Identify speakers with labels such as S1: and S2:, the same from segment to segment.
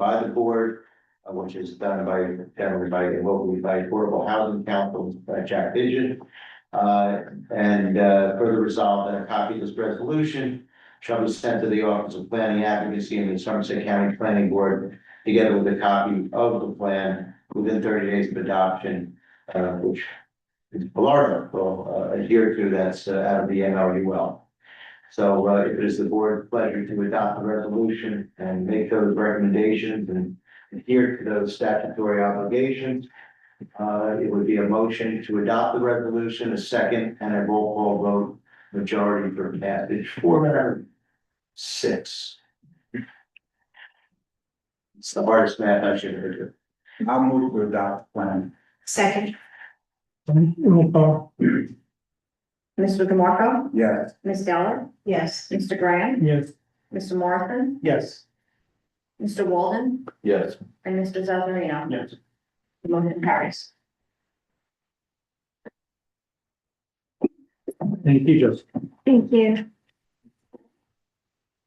S1: by the board, uh, which is done by, generally by, locally by Affordable Housing Council, uh, Jack Pigeon. Uh, and, uh, further resolved that a copy of this resolution shall be sent to the Office of Planning Advocacy and the Somerset County Planning Board, together with a copy of the plan within thirty days of adoption, uh, which is Florida will uh, adhere to, that's uh, out of the MLUL. So uh, it is the board's pleasure to adopt the resolution and make those recommendations and adhere to those statutory obligations. Uh, It would be a motion to adopt the resolution, a second, and a roll call vote majority for passage, four hundred six. It's the hardest math I should ever do.
S2: I'll move to adopt plan.
S3: Second,
S4: Roll call,
S5: Mr. DeMarco,
S2: Yes,
S5: Ms. Deller,
S3: yes,
S5: Mr. Graham,
S4: yes.
S5: Mr. Morrison,
S4: Yes.
S5: Mr. Walden,
S1: Yes.
S5: and Mr. Zazarino.
S4: Yes.
S5: The Motion carries.
S4: Thank you, Joseph.
S5: Thank you.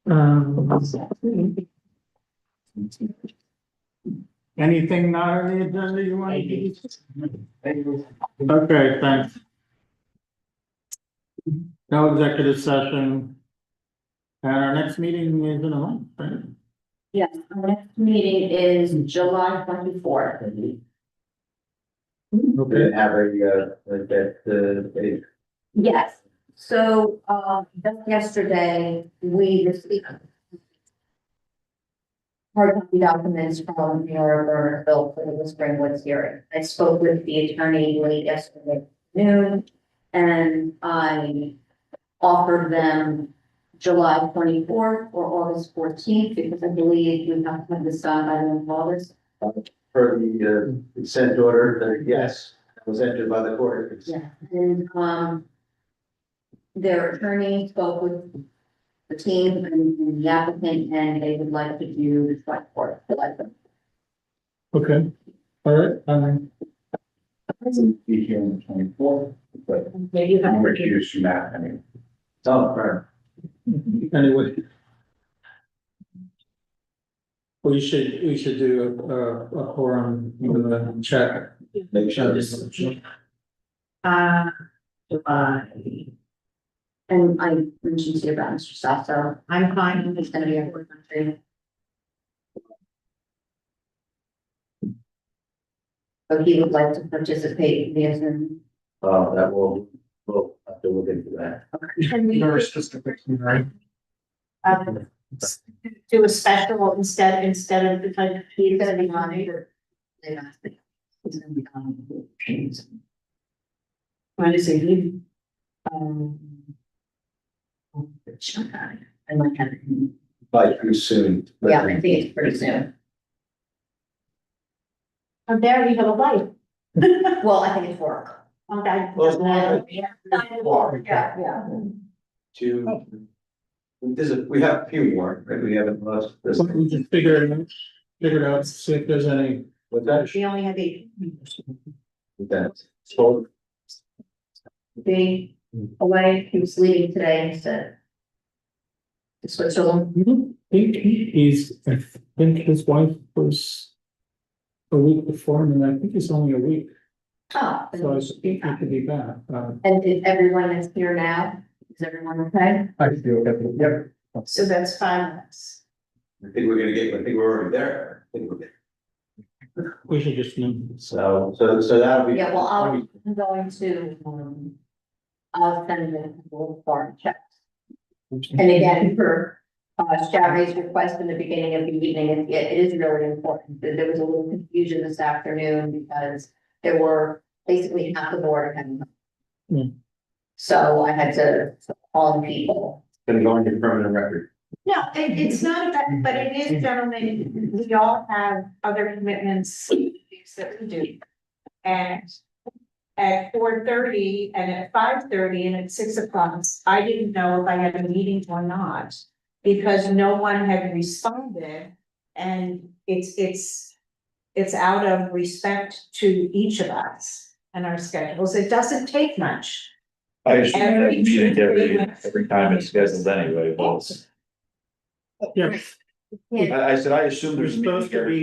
S4: Um, Anything not on the agenda you want to do? Okay, thanks. No executive session. And our next meeting is in a month, right?
S5: Yes, our next meeting is July twenty-fourth.
S1: Okay, have a, uh, like that, uh, a
S5: Yes, so, uh, just yesterday, we received hard copy documents from Mayor Bernardville for the Springwoods hearing. I spoke with the attorney late yesterday noon, and I offered them July twenty-fourth or August fourteenth, because I believe we have to have this done by the end of August.
S1: per the uh, consent order, the yes, that was entered by the court.
S5: Yeah, and, um, their attorney spoke with the team and and the applicant, and they would like to do the select board, the like them.
S4: Okay, all right, um,
S2: be here on the twenty-fourth, but
S3: maybe
S2: I'm
S3: that,
S2: recused from that, I mean.
S1: Oh, firm.
S4: anyway. We should, we should do a, a forum, uh, check.
S1: Make sure.
S3: uh, July.
S5: and I mentioned to you about Mr. Sasso.
S3: I'm fine,
S5: He's gonna be a board member. So he would like to participate in the Zoom.
S1: Oh, that will, we'll have to look into that.
S3: Can we um, s- do a special instead, instead of, because he's gonna be on it.
S5: They've asked me. He's gonna be on.
S3: When is he? Um.
S5: I might have him.
S1: By too soon. but-
S5: Yeah, I think it's pretty soon.
S3: Oh, there you have a light.
S5: Well, I think it's work.
S3: Okay.
S1: Well,
S3: Yeah.
S5: Yeah.
S1: To. There's a, we have a few more, right? We haven't lost this.
S4: We can figure it out, figure it out, see if there's any.
S1: With that,
S3: We only have eight.
S1: with that. So,
S5: Be away, he was leaving today, he said. To Switzerland.
S4: You don't think he is, I think his wife was. A week before him, and I think it's only a week,
S5: Oh.
S4: so I was thinking he could be back, uh.
S5: And is everyone that's here now, is everyone okay?
S4: I feel that, yep.
S3: So that's five minutes.
S1: I think we're gonna get, I think we're already there. I think we're good.
S4: We should just, you
S1: So, so, so that'll be.
S5: Yeah, well, I'll, I'm going to, um. I'll send them a little form check. And again, for, uh, Shabby's request in the beginning of the evening, it, it is really important, that there was a little confusion this afternoon because there were basically half the board and.
S4: Hmm.
S5: So I had to call the people.
S1: Gonna go into permanent record.
S3: No, it, it's not about, but it is, gentlemen, we all have other commitments things that we do. And at four thirty and at five thirty and at six o'clock, I didn't know if I had a meeting or not. Because no one had responded and it's, it's, it's out of respect to each of us and our schedules. It doesn't take much.
S6: I just have a
S3: Every two,
S6: meeting
S3: three
S6: every,
S3: months.
S6: every time it's scheduled anyway, but
S4: Yes.
S7: Yeah.
S4: I, I said, I assume
S1: There's
S4: there's. a meeting
S1: supposed to
S4: here.
S1: be